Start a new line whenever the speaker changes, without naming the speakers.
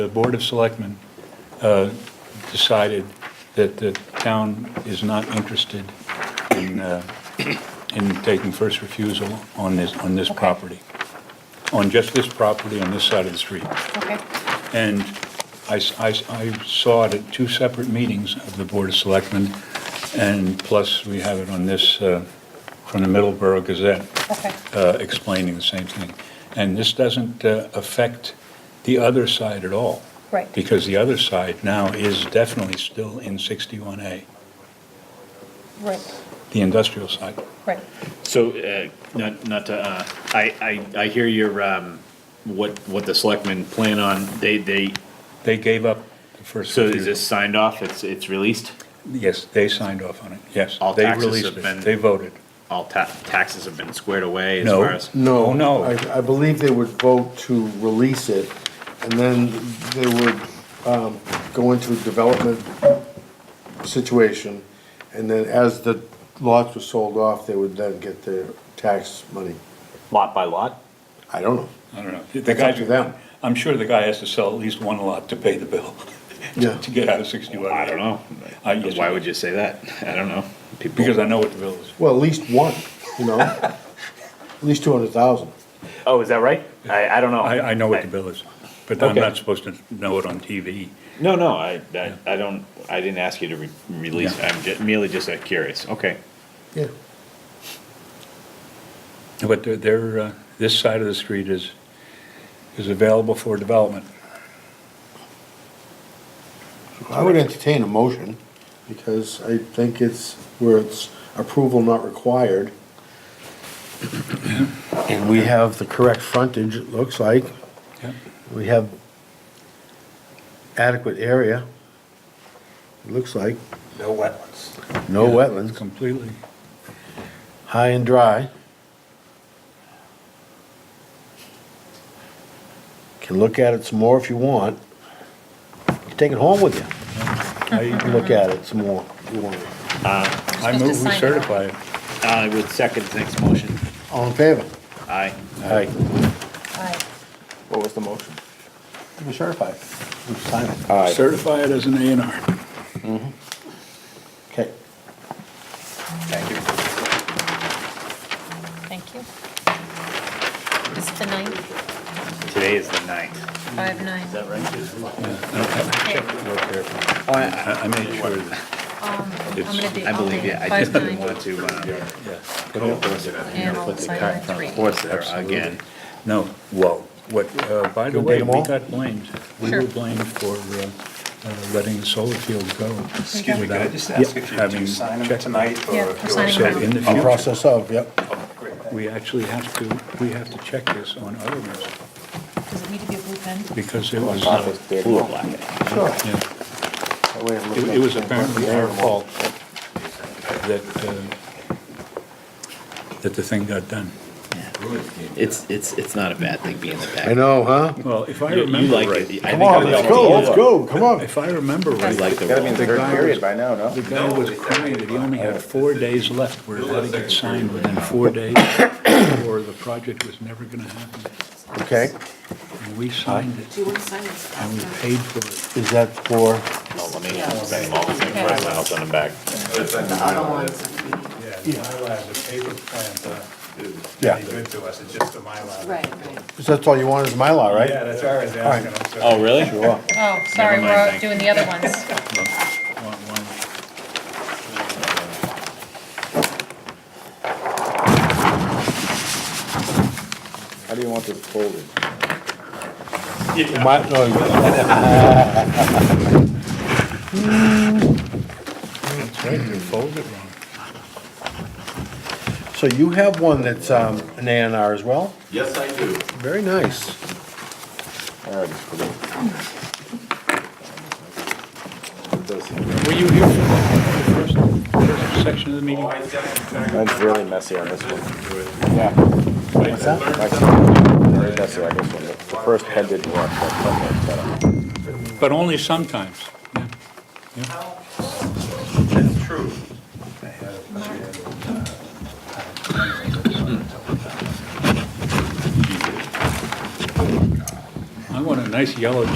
The Board of Selectmen uh, decided that the town is not interested in, uh, in taking first refusal on this, on this
Okay.
property, on just this property on this side of the street.
Okay,
And I, s- I s- I saw it at two separate meetings of the Board of Selectmen, and plus we have it on this, uh, from the Middleborough Gazette
okay,
uh, explaining the same thing. And this doesn't uh, affect the other side at all.
Right.
Because the other side now is definitely still in 61A,
right,
the industrial side.
right.
So, uh, not, not to, uh, I, I, I hear your, um, what, what the selectmen plan on, they, they,
They gave up the first.
so is
refusal.
this signed off, it's, it's released?
Yes, they signed off on it, yes.
All
They
taxes
released
have
it.
been-
They voted.
All ta- taxes have been squared away as
No.
far as?
Oh,
No.
no.
I, I believe they would vote to release it, and then they would, um, go into a development situation, and then as the lots were sold off, they would then get their tax money.
Lot by lot?
I don't know.
I don't know. The
That's
guy-
up to them.
I'm sure the guy has to sell at least one lot to pay the bill,
Yeah.
to get out of 61A.
I don't know.
I guess-
Why would you say that? I don't know. People-
Because I know what the bill is.
Well, at least one, you know? At least two hundred thousand.
Oh, is that right? I, I don't know.
I, I know what
I-
the bill is, but I'm
Okay.
not supposed to know it on TV.
No, no, I, I, I don't, I didn't ask you to re- release, I'm ju- merely just uh, curious, okay.
Yeah.
But they're- they're, uh, this side of the street is, is available for development.
I would entertain a motion, because I think it's where it's approval not required. And we have the correct frontage, it looks like.
Yep.
We have adequate area, it looks like.
No wetlands.
No wetlands,
Completely.
high and dry. Can look at it some more if you want. You can Take it home with you,
I,
look at it some more if you want.
I move we certify it.
Uh, I would second Nick's motion.
All in favor?
Aye.
Aye.
Aye.
What was the motion?
To be certified. Sign it.
Certify it as an A and R.
Okay.
Thank you.
Thank you. Is it the ninth,
Today is the ninth.
five nine? Is that right?
I I made sure that,
Okay, Um, I'm gonna be,
I
I'll
believe
be
it. I
five
just didn't want
nine,
to, uh,
and I'll sign on three.
force there again.
no, whoa. What, uh, by the
You
way,
did 'em
we
all?
got blamed. We
Sure.
were blamed for uh, uh, letting the solar field go.
Excuse me, could I just
without
ask if you
having
do sign them
checked.
tonight? or
Yeah,
if
I'm
you-
signing
So in the
I'll
future,
process of, yep.
Great, thank you.
we actually have to, we have to check this on other ones
Does it need to be a blue pen?
because it was,
Office
uh,
did.
Blue or black?
Sure.
yeah. It it was apparently our fault that, uh, that the thing got done.
It's, it's, it's not a bad thing being the
I
back.
know, huh?
Well, if I
You you
remember
like
right,
it. I
Come
think
on,
I'm
let's
the
go,
only
let's
one.
go, come on.
if I remember
You
right,
like
It's gotta be
the
in the third
guy was-
period by now, no?
the guy was crying that he only had four days left where it had to get signed within four days or the project was never going to happen.
Okay,
And we signed it
Do you want to sign this?
and we paid for it.
is that for,
No, let me, I'm signing all the thing for my house on the back.
I don't want to.
Yeah, the Mylar is a paper plan, but
Yeah.
any good to us, it's just a Mylar.
Right, right.
is that all you want is Mylar,
Yeah,
right?
that's why I was asking, I'm sorry.
Oh, really?
Sure.
Oh, sorry,
Never mind,
we're
thank
doing the other ones.
One- one-
How do you want this folded?
My- no, you-
That's right, they folded it wrong.
So you have one that's um, an A and R as well?
Yes, I do.
Very nice.
I already forgot. It does seem-
Were you here for the first- first section of the meeting?
Mine's really messy on this one. Yeah.
What's that?
Mine's Very messy on this one. The first head didn't work, but it's better.
But only sometimes. yeah.
That's true.
I want a nice yellow